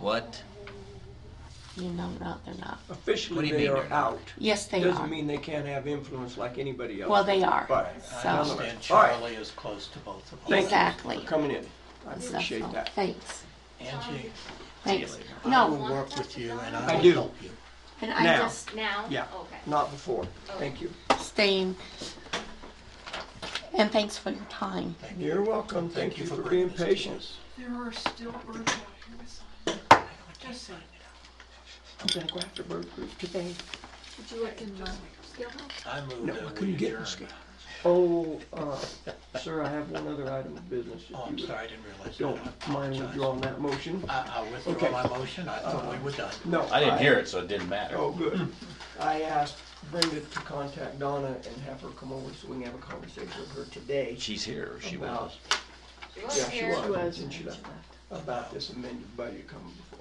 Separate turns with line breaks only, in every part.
What?
You know, no, they're not.
What do
Officially,
you
they
mean
are
they're not?
out.
Yes, they
Doesn't
are.
mean they can't have influence like anybody else.
Well, they are.
Right.
So-
I
All
understand
right.
Charlie is close to both of
Thank
us.
you
Exactly.
For coming in. I
So,
appreciate that.
Thanks.
Angie,
Thanks.
I will
No,
work with you and
I
I
do.
will help you.
and I
Now.
just
Now?
Yeah,
Okay.
not before. Thank you.
staying. And thanks for your time.
Thank
You're welcome. Thank you for being
bringing this to
patient.
us.
There are still birds out here beside. Just saying.
I'm gonna go after Bird Group today.
Did you look in the
I moved
No,
that
I
we
couldn't get
adjourn.
this guy. Oh, uh, sir, I have one other item of business. if
Oh, I'm
you
sorry, I didn't realize that.
Don't
I
mind
apologize.
withdrawing that motion?
I, I
Okay.
withdraw my motion, I thought we were done.
No.
I didn't hear it, so it didn't matter.
Oh, good. I asked Brenda to contact Donna and have her come over so we can have a conversation with her today.
She's here, or she
about-
was.
Yeah, she was.
was,
and she left. About this amended budget coming before. us.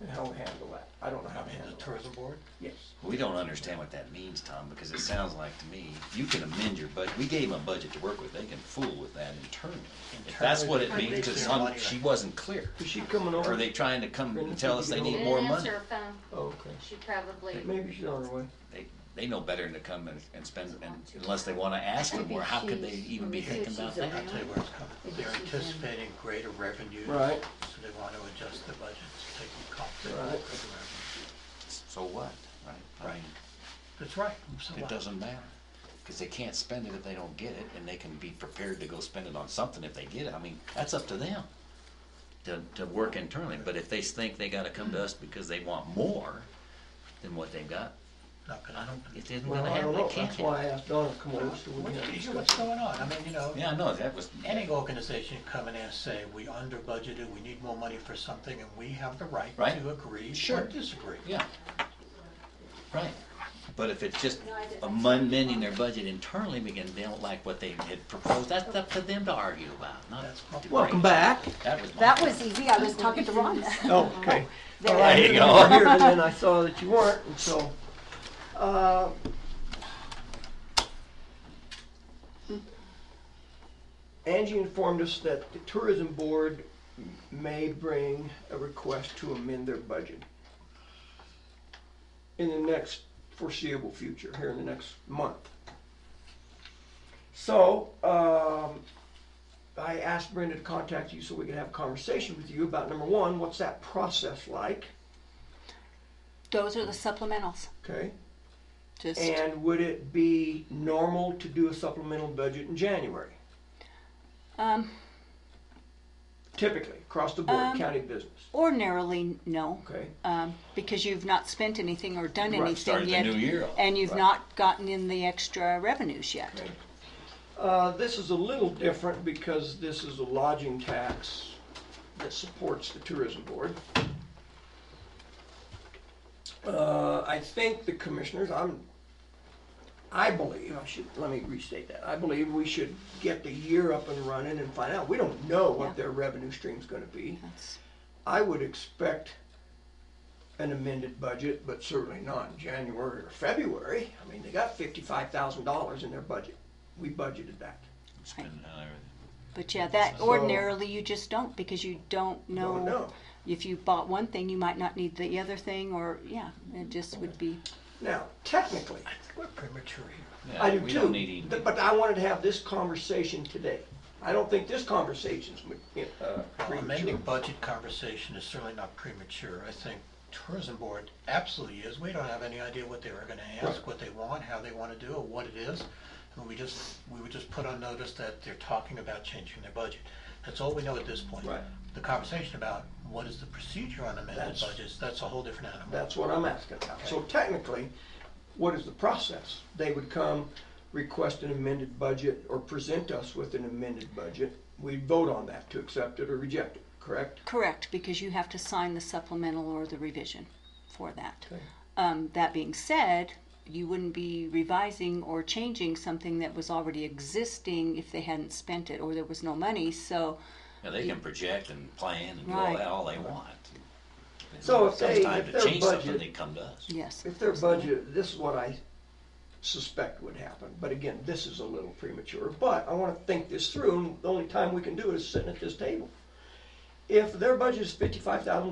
And how we handle that. I don't know how
I'm
to
in the
handle it.
tourism board.
Yes.
We don't understand what that means, Tom, because it sounds like to me, you can amend your budget, we gave them a budget to work with, they can fool with that internally. If that's what it means, because some, she wasn't clear.
Is she coming over?
Are they trying to come and tell us they need more
Didn't
money?
answer her phone.
Okay.
She probably.
Maybe she's on her way.
They, they know better than to come and, and spend, and unless they wanna ask them, or how could they even be thinking about
I'll
that?
tell you where it's coming. They're anticipating greater revenues.
Right.
So they want to adjust the budgets, take them confident.
Right.
So what, right? I mean,
That's right. So
It
what?
doesn't matter, because they can't spend it if they don't get it, and they can be prepared to go spend it on something if they get it. I mean, that's up to them to, to work internally, but if they think they gotta come to us because they want more than what they've got,
Not gonna
I don't,
happen.
it isn't
Well,
gonna
I don't
happen, it
know.
can't
That's why I
happen.
asked Donna to come over so we
Well,
can
you
have a
hear
discussion.
what's going on. I mean, you know.
Yeah, no, that was,
Any organization come in and say, we under budgeted, we need more money for something, and we have the right
Right.
to agree or
Sure.
disagree.
yeah. Right, but if it's just amending their budget internally because they don't like what they had proposed, that's up to them to argue about, not.
That's my-
Welcome back.
That was my
That was easy, I was talking to Rhonda.
Oh, okay.
There
All right,
you
I knew
go.
were here, and then I saw that you weren't, and so, uh. Angie informed us that the tourism board may bring a request to amend their budget in the next foreseeable future, here in the next month. So, um, I asked Brenda to contact you so we could have a conversation with you about number one, what's that process like?
Those are the supplementals,
Okay,
just,
and would it be normal to do a supplemental budget in January?
um,
Typically, across the board,
Um,
county business,
ordinarily, no,
okay?
um, because you've not spent anything or done
Right,
anything
started the
yet.
new year off.
And you've
Right.
not gotten in the extra revenues yet.
Uh, this is a little different because this is a lodging tax that supports the tourism board. Uh, I think the commissioners, I'm, I believe, I should, let me restate that, I believe we should get the year up and running and find out. We don't know
Yeah.
what their revenue stream's gonna be.
That's-
I would expect an amended budget, but certainly not in January or February. I mean, they got fifty-five thousand dollars in their budget. We budgeted that.
spending on everything.
But yeah, that
So-
ordinarily you just don't, because you don't
Don't
know.
know.
If you bought one thing, you might not need the other thing, or, yeah, it just would be,
Now, technically,
We're premature here.
Yeah,
I do
We don't need
too,
any-
th- but I wanted to have this conversation today. I don't think this conversation's, ma- uh,
Well,
premature.
Amending budget conversation is certainly not premature. I think tourism board absolutely is. We don't have any idea what they were gonna ask,
Right.
what they want, how they wanna do, or what it is. And we just, we would just put on notice that they're talking about changing their budget. That's all we know at this point.
Right.
The conversation about what is the procedure on amended
That's-
budgets, that's a whole different animal.
That's what I'm asking about. So technically, what is the process? They would come, request an amended budget, or present us with an amended budget. We'd vote on that to accept it or reject it, correct?
correct, because you have to sign the supplemental or the revision for that.
Okay.
Um, that being said, you wouldn't be revising or changing something that was already existing if they hadn't spent it or there was no money, so,
Yeah, they can project and plan and do all
Right.
that all they want.
So if they-
Sometime
if
to
their
change something,
budget-
they come to us.
yes.
If their budget, this is what I suspect would happen, but again, this is a little premature, but I wanna think this through, and the only time we can do it is sitting at this table. if their budget is fifty-five thousand